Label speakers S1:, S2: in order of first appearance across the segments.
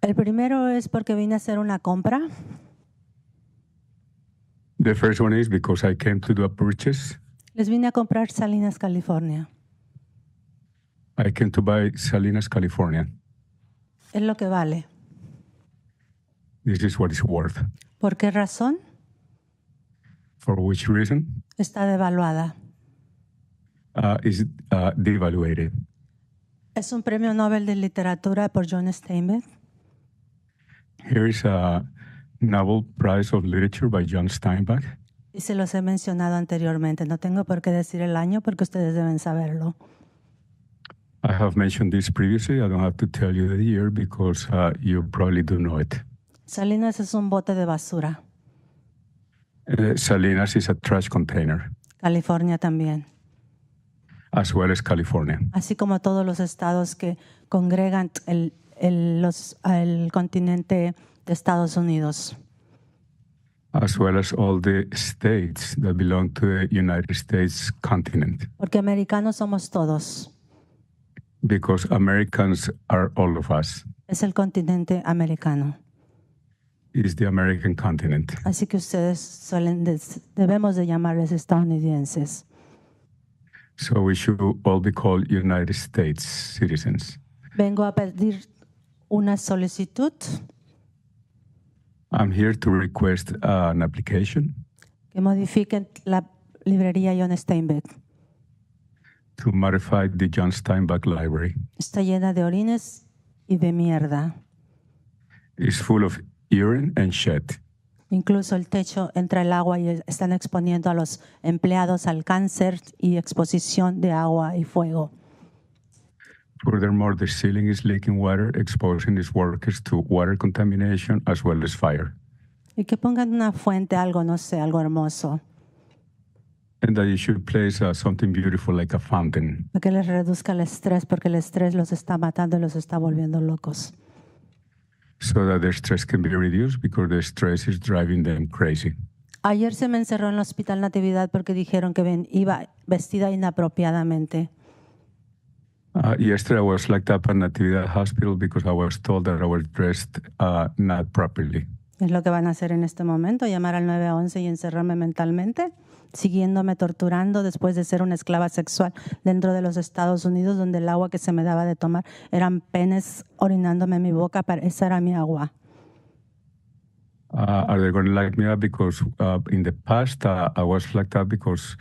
S1: El primero es porque vine a hacer una compra.
S2: The first one is because I came to do a purchase.
S1: Les vine a comprar Salinas, California.
S2: I came to buy Salinas, California.
S1: Es lo que vale.
S2: This is what it's worth.
S1: ¿Por qué razón?
S2: For which reason?
S1: Está devaluada.
S2: Uh, is uh, devaluated.
S1: Es un premio Nobel de literatura por John Steinbeck.
S2: Here is a Nobel Prize of Literature by John Steinbeck.
S1: Y se los he mencionado anteriormente. No tengo por qué decir el año porque ustedes deben saberlo.
S2: I have mentioned this previously. I don't have to tell you the year because uh, you probably do know it.
S1: Salinas es un bote de basura.
S2: Uh, Salinas is a trash container,
S1: California también.
S2: as well as California,
S1: Así como todos los estados que congregan el, el- los- el continente de Estados Unidos.
S2: as well as all the states that belong to the United States continent,
S1: Porque americanos somos todos.
S2: because Americans are all of us.
S1: Es el continente americano.
S2: It's the American continent.
S1: Así que ustedes suelen des- debemos de llamarles estadounidenses.
S2: So we should all be called United States citizens.
S1: Vengo a pedir una solicitud
S2: I'm here to request uh, an application
S1: que modifiquen la librería John Steinbeck.
S2: to modify the John Steinbeck Library.
S1: Está llena de orines y de mierda.
S2: It's full of urine and shit.
S1: Incluso el techo entra el agua y están exponiendo a los empleados al cáncer y exposición de agua y fuego.
S2: Furthermore, the ceiling is leaking water, exposing its workers to water contamination as well as fire.
S1: Y que pongan una fuente, algo, no sé, algo hermoso,
S2: And that you should place uh, something beautiful like a fountain
S1: para que les reduzca el estrés, porque el estrés los está matando y los está volviendo locos.
S2: so that their stress can be reduced because the stress is driving them crazy.
S1: Ayer se me encerró en el hospital Natividad porque dijeron que ven- iba vestida inapropiadamente.
S2: Uh, yesterday, I was locked up at Natividad Hospital because I was told that I was dressed uh, not properly.
S1: Es lo que van a hacer en este momento, llamar al 911 y encerrarme mentalmente, siguiéndome torturando después de ser una esclava sexual dentro de los Estados Unidos, donde el agua que se me daba de tomar eran penes orinándome en mi boca, pero esa era mi agua.
S2: Uh, are they going to lock me up because uh, in the past uh, I was locked up because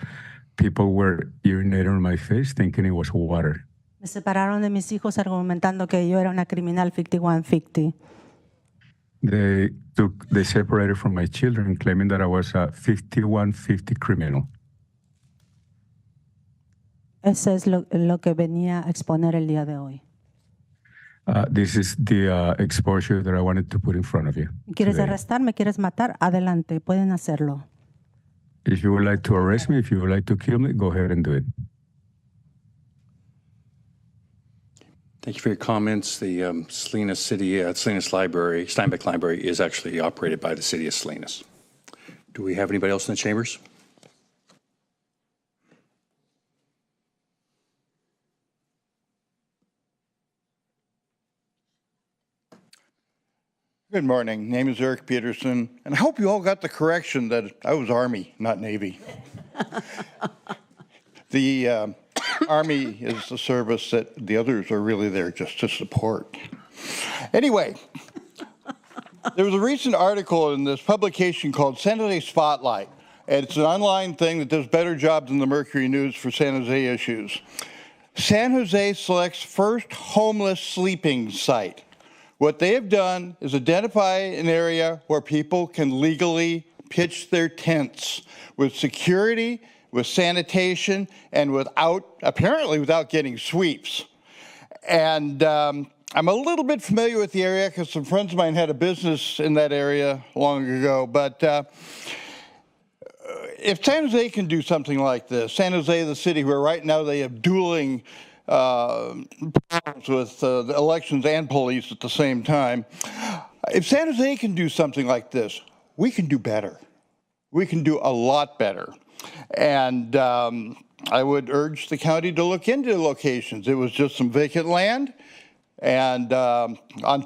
S2: people were urinating on my face thinking it was water.
S1: Me separaron de mis hijos argumentando que yo era una criminal 5150.
S2: They took, they separated from my children, claiming that I was a 5150 criminal.
S1: Eso es lo, lo que venía a exponer el día de hoy.
S2: Uh, this is the uh, exposure that I wanted to put in front of you.
S1: ¿Quieres
S2: today.
S1: arrestarme? ¿Quieres matar? Adelante, pueden hacerlo.
S2: If you would like to arrest me, if you would like to kill me, go ahead and do it.
S3: Thank you for your comments. The um, Salinas City, uh, Salinas Library, Steinbeck Library is actually operated by the city of Salinas. Do we have anybody else in the chambers?
S4: Good morning. Name is Eric Peterson, and I hope you all got the correction that I was Army, not Navy. the um, Army is the service that the others are really there just to support. Anyway, there was a recent article in this publication called San Jose Spotlight, and it's an online thing that does better job than the Mercury News for San Jose issues. San Jose selects first homeless sleeping site. What they have done is identify an area where people can legally pitch their tents with security, with sanitation, and without, apparently, without getting sweeps. And um, I'm a little bit familiar with the area because some friends of mine had a business in that area long ago, but. Uh, if San Jose can do something like this, San Jose, the city where right now they have dueling uh, problems with uh, the elections and police at the same time, if San Jose can do something like this, we can do better. We can do a lot better. And um, I would urge the county to look into locations. It was just some vacant land, and um, on